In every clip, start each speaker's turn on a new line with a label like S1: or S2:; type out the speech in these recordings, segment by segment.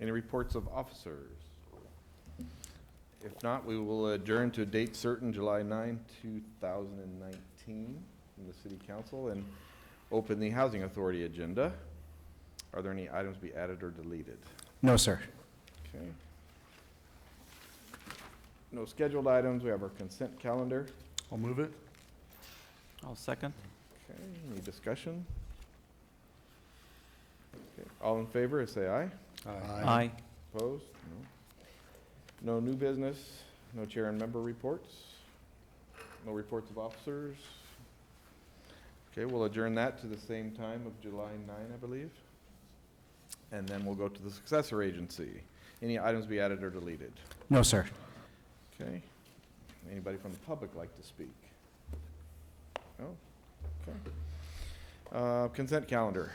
S1: Any reports of officers? If not, we will adjourn to a date certain, July 9, 2019, in the city council, and open the housing authority agenda. Are there any items to be added or deleted?
S2: No, sir.
S1: Okay. No scheduled items, we have our consent calendar.
S3: I'll move it.
S4: I'll second.
S1: Okay, any discussion? Okay, All in favor, say aye.
S4: Aye.
S1: Opposed? No. No new business, no chair and member reports, no reports of officers. Okay, we'll adjourn that to the same time of July 9, I believe. And then we'll go to the successor agency. Any items be added or deleted?
S2: No, sir.
S1: Okay. Anybody from the public like to speak? No? Okay. Uh, Consent calendar.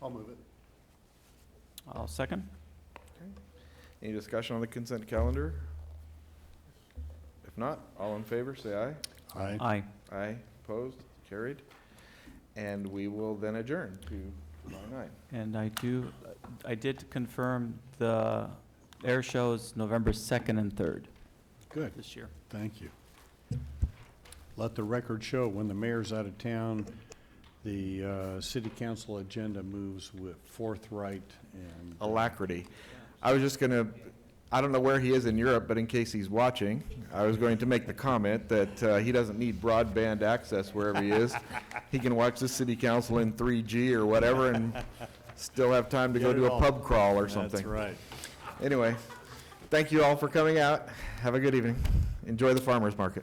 S3: I'll move it.
S4: I'll second.
S1: Any discussion on the consent calendar? If not, all in favor, say aye.
S3: Aye.
S4: Aye.
S1: Aye, opposed, carried. And we will then adjourn to July 9.
S4: And I do, I did confirm the air shows November 2nd and 3rd
S3: Good,
S4: this year.
S3: thank you. Let the record show, when the mayor's out of town, the uh, city council agenda moves with forthright and.
S1: Alacrity. I was just going to, I don't know where he is in Europe, but in case he's watching, I was going to make the comment that uh, he doesn't need broadband access wherever he is. He can watch the city council in 3G or whatever and still have time to go
S3: Get it
S1: do a
S3: all.
S1: pub crawl or something.
S3: That's right.
S1: Anyway, thank you all for coming out. Have a good evening. Enjoy the farmer's market.